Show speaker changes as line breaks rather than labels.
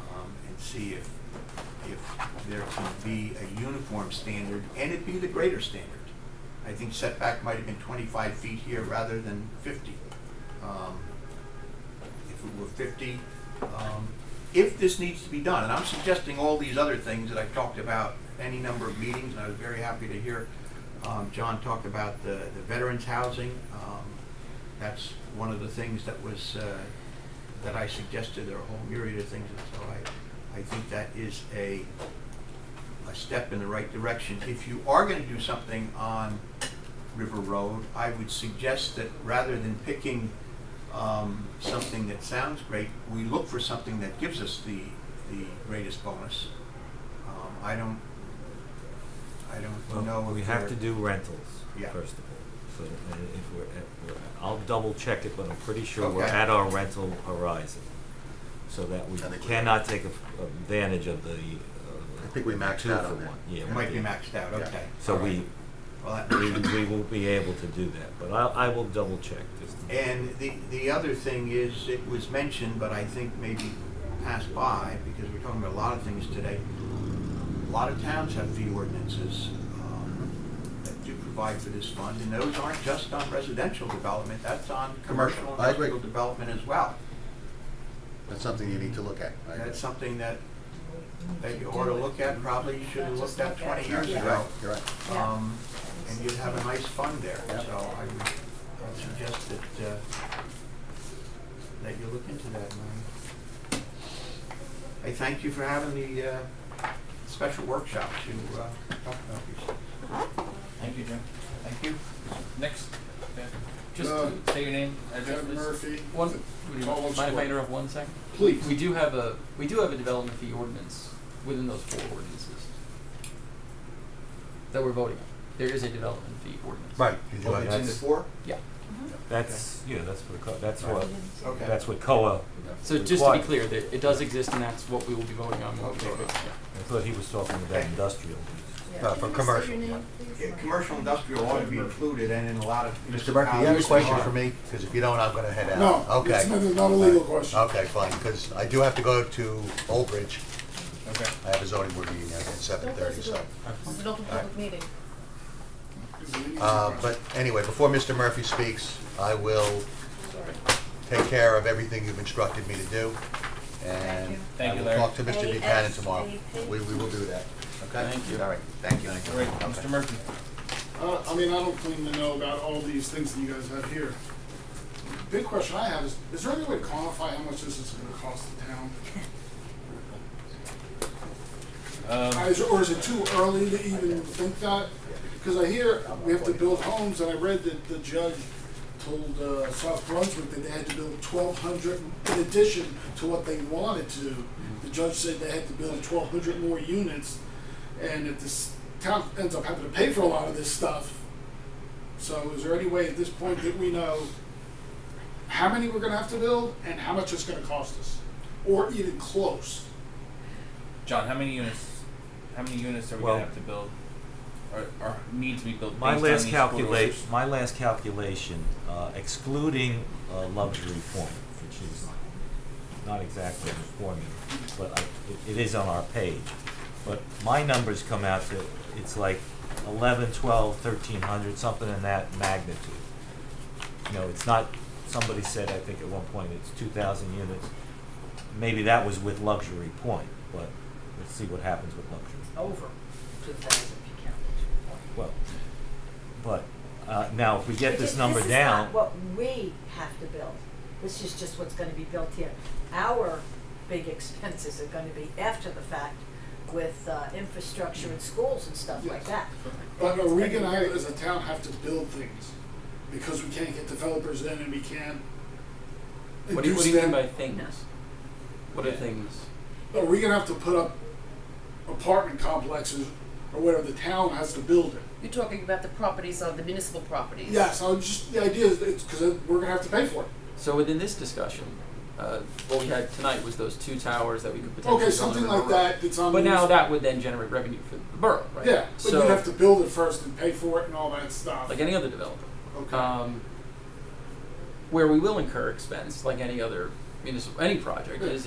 um, see if, if there can be a uniform standard, and it be the greater standard. I think setback might have been twenty-five feet here rather than fifty. Um, If it were fifty, um, if this needs to be done, and I'm suggesting all these other things that I've talked about any number of meetings, and I was very happy to hear, um, John talked about the, the veterans' housing. Um, That's one of the things that was, uh, that I suggested, there are a whole myriad of things, and so I, I think that is a, a step in the right direction. If you are gonna do something on River Road, I would suggest that rather than picking, um, something that sounds great, we look for something that gives us the, the greatest bonus. Um, I don't, I don't know
Well,
if
we have to
there-
do rentals,
Yeah.
first of all. So, uh, if we're, at- we're, I'll double check it, but I'm pretty sure we're
Okay.
at our rental horizon. So that we
I think we-
cannot take a- advantage of the, uh,
I think we maxed
two
out
for
on that.
one. Yeah,
It
we
might be
did.
maxed out,
Yeah.
okay.
So
all right.
we,
Well, that
we, we won't be able to do that, but I, I will double check just. to-
And the, the other thing is, it was mentioned, but I think maybe passed by, because we're talking about a lot of things today. A lot of towns have fee ordinances um, that do provide for this fund, and those aren't just on residential development, that's on commercial
Commercial, I agree.
industrial development as well.
That's something you need to look at. I agree.
That's something that, that you ought to look at, probably you should have looked at twenty years
You're
Yeah.
right,
ago.
you're right.
Yeah.
Um, and you'd have a nice fund there, so
Yeah.
I would, I would suggest that, uh, that you look into that, Mary. I thank you for having the, uh, special workshop to, uh, talk about these. things.
Thank you, Jim.
Thank you.
Next, yeah. just
Uh,
say your name, address,
Jeff
please.
Murphy.
One,
th-
would you
Total
mind if I
square.
interrupt one second?
Please.
We do have a, we do have a development fee ordinance within those four ordinances that we're voting on. There is a development fee ordinance.
Right.
Oh, it's in the
that's-
four?
Yeah.
That's, yeah, that's what, co- that's what,
Okay.
that's what COA,
So just to be
Required.
clear, that it does exist and that's what we will be voting on.
Okay.
I thought he was talking about
Okay.
industrial.
Uh, for commercial.
Yeah, commercial industrial ought to be included and in a lot of
Mr. Murphy, you have a
municipalities
question
are.
for me? Because if you don't, I'm gonna head out.
No, it's not,
Okay.
it's not a legal question.
Okay, fine, because I do have to go to Old Bridge.
Okay.
I have a zoning board meeting at seven thirty, so.
It's an open public meeting.
It's a legal
Uh,
question.
but anyway, before Mr. Murphy speaks, I will
Sorry.
take care of everything you've instructed me to do. And
Thank
I
you,
will
Larry.
talk to Mr. Buchanan tomorrow.
ASAP.
We, we will do that, okay?
Thank you.
All right, thank you.
All right, Mr. Murphy.
Uh, I mean, I don't claim to know about all these things that you guys have here. Big question I have is, is there any way to quantify how much this is gonna cost the town? Uh, is- Or is it too early to even think that? Because I hear we have to build homes, and I read that the judge told uh, South Brunswick that they had to build twelve hundred in addition to what they wanted to. The judge said they had to build twelve hundred more units, and if this town ends up having to pay for a lot of this stuff, so is there any way at this point that we know how many we're gonna have to build and how much it's gonna cost us? Or even close?
John, how many units, how many units are
we gonna Well- have
to build? Or, or need to be built
My last calculate, my last calculation, uh, excluding uh, luxury point, which is not exactly in the formula, but I, it, it is on our page. But my numbers come out to, it's like eleven, twelve, thirteen hundred, something in that magnitude. You know, it's not, somebody said, I think at one point, it's two thousand units. Maybe that was with luxury point, but let's see what happens with luxury.
over two thousand if you count the two point.
Well, but, uh, now, if we get
Because
this number
is
down,
not what we have to build. This is just what's gonna be built here. Our big expenses are gonna be after the fact with, uh, infrastructure and schools and stuff like
Yes.
that.
But are we gonna, as a town, have to build things? Because we can't get developers in and we can't
What do you, what
induce
do you mean
them?
by things? What are things?
Are we gonna have to put up apartment complexes or whatever, the town has to build it?
You're talking about the properties on the municipal properties.
Yes, I was just, the idea is, that it's, cause it- we're gonna have to pay for it.
So within this discussion, uh, what we had tonight was those two towers that we could potentially
Okay,
build
something
in River
like
Road.
that, that's on.
But
the-
now that would then generate revenue for the borough, right?
Yeah, but
so
you'd have to build it first and pay for it and all that stuff.
like any other developer,
Okay,
um, where we will incur expense, like any other municipal any project,
Yeah.
is